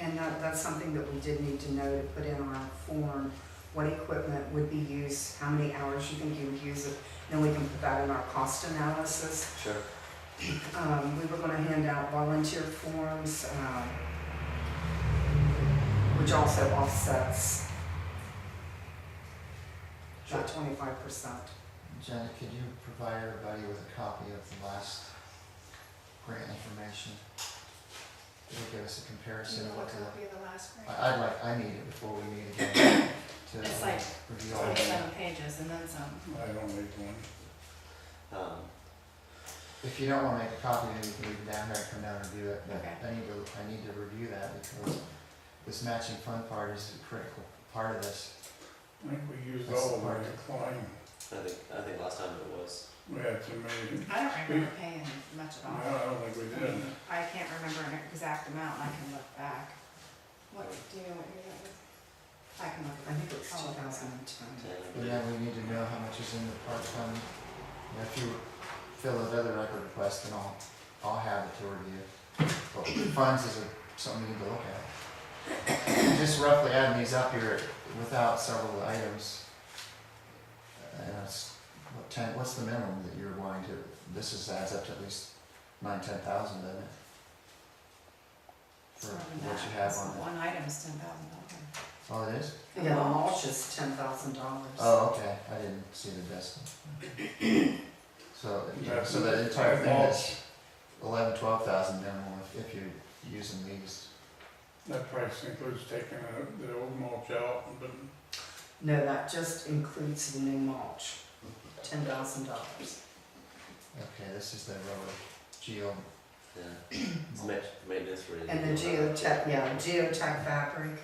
And that, that's something that we did need to know to put in our form, what equipment would be used, how many hours you think you would use it. Then we can put that in our cost analysis. Sure. Um, we were gonna hand out volunteer forms, um, which also offsets Sure. that twenty-five percent. Oh, Jenna, could you provide everybody with a copy of the last grant information? It'll give us a comparison of what to, copy of the last grant? I- I'd like, I need it before we meet again to It's like review all that. twenty-seven pages and then some. I don't need one. Um, If you don't wanna make a copy, then you can leave it down here and come down and review it, but Okay. I need to, I need to review that because this matching fund part is a critical part of this. I think we used That's all of the our market. decline. I think, I think last time it was, We had too many. I don't remember paying much at No, all. I don't think we did. I can't remember an exact amount, I can look back. What, do you know what year that was? I can look. I think it was I'll two look back. thousand and ten. ten, But yeah, we need to know how much is in the park fund. You know, if you fill out other record requests, then I'll, I'll have it to review. But funds is a- something we need to look at. Just roughly adding these up here without several items. And it's, what ten, what's the minimum that you're wanting to, this is adds up to at least nine, ten thousand, doesn't it? It's For more than what that. you have It's on that. One item's ten thousand dollars. Oh, it is? Yeah, the mulch is ten thousand dollars. Oh, okay, I didn't see the decimal. So, yeah, so that entire thing is eleven, twelve thousand minimal if, if you're using these. That price includes taking out the old mulch out, but No, that just includes the new mulch, ten thousand dollars. Okay, this is the rubber geo. yeah, it's ma- maintenance for. And the geotech, yeah, geotech fabric,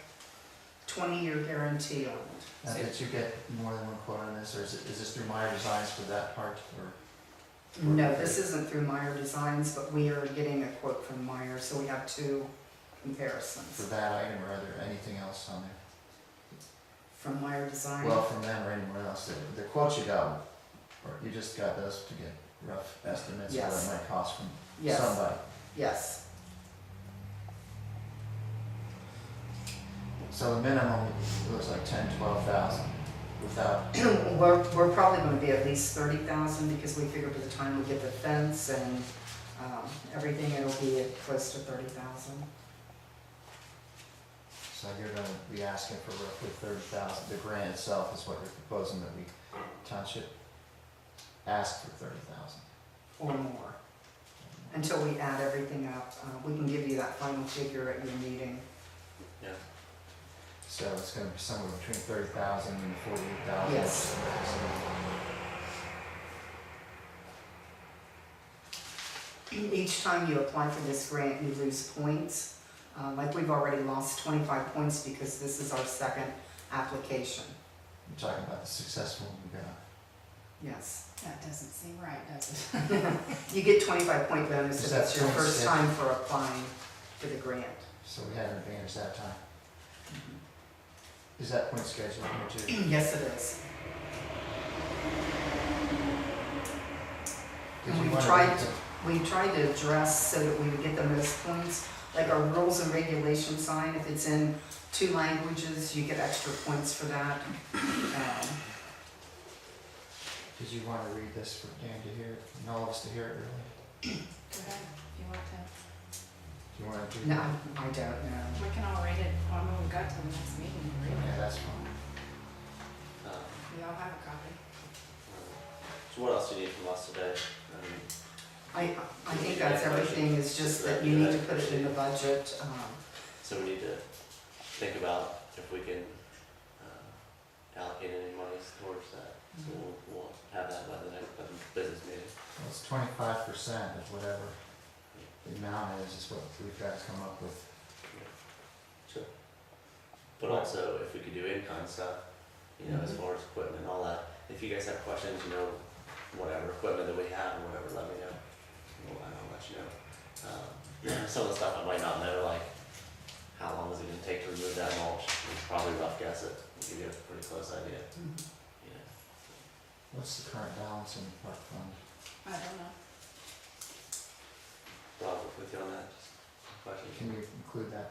twenty-year guarantee on it. Now, did you get more than one quote on this, or is it, is this through Meyer Designs for that part, or? No, this isn't through Meyer Designs, but we are getting a quote from Meyer, so we have two For comparisons. that item, or other anything else on there? From Meyer Well, Design, from them or anywhere else, the, the quotes you got, or you just got those to get rough estimates of Yes. what it might cost from yes, somebody. yes, So the minimum was like ten, twelve thousand without, we're, we're probably gonna be at least thirty thousand, because we figure by the time we get the fence and, um, everything, it'll be at close to thirty thousand. so you're gonna be asking for roughly thirty thousand, the grant itself is what you're proposing that we township ask for thirty thousand. or more. Until we add everything up, uh, we can give you that final figure at your meeting. So it's gonna be somewhere between thirty thousand and forty-eight thousand. Yes. Each time you apply for this grant, you lose points. Uh, Like we've already lost 25 points because this is our second application. You're talking about the successful we got. Yes. That doesn't seem right, does it? You get 25 point bonus if Is that it's your points, first yeah? time for applying for the grant. so we had an advantage that time. Is that point scheduled here too? Yes, it is. Did you We've wanna tried read to- the- We tried to address so that we would get the most points, like our rules and regulations sign, if it's in two languages, you get extra points for that. Um, Did you wanna read this for Dan to hear, and all of us to hear it really? Go ahead, if you want to, Do you wanna do? No, I that? don't know. we can all read it on when we got to the next meeting, Yeah, really. that's fine. Um, We all have a copy. So what else do you need from us today? Um, I, I think that's everything, it's just that you need to put it in the budget. um, So we need to think about if we can uh, allocate any monies towards that. So we'll, we'll have that by the next by the business meeting. Well, it's twenty-five percent of whatever the amount is, is what we've got to come up with. But also, if we could do in-kind stuff, you know, as far as equipment and all that. If you guys have questions, you know, whatever equipment that we have, or whatever, let me know. Well, I'll let you know. Um, some of the stuff I might not know, like how long is it gonna take to remove that mulch? It's probably rough guess it. We'll give you a pretty close idea, you know. What's the current balance in the park fund? I don't know. Rob, with you on that, just a question. Can you include that